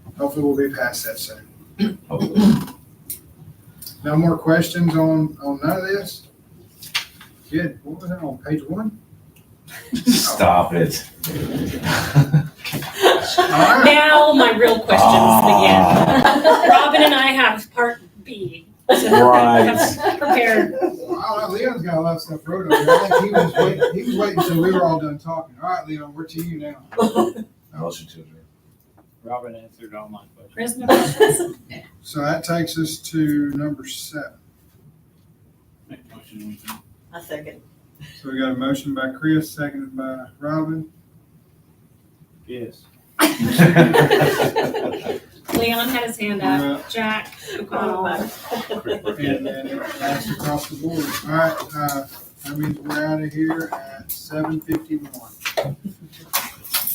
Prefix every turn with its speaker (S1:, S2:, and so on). S1: hopefully we'll be past that soon.
S2: hopefully.
S1: No more questions on, on none of this? Good, what was that, on page one?
S2: Stop it.
S1: All right.
S3: Now my real questions begin.
S4: Ah.
S3: Robin and I have part B.
S2: Right.
S3: Prepared.
S1: Wow, Leon's got a lot of stuff wrote on there. I think he was waiting, he was waiting until we were all done talking. All right, Leon, we're to you now.
S2: Motion to adjourn.
S5: Robin answered all my
S3: Where's
S5: questions.
S3: my questions?
S1: So that takes us to number seven.
S5: Make a motion, we can-
S4: A second.
S1: So we got a motion by Chris, seconded by Robin.
S5: Yes.
S3: Leon had his hand up.
S1: Uh,
S3: Jack McConnell.
S1: And then it passed across the board. All right, uh, that means we're out of here at seven fifty-one.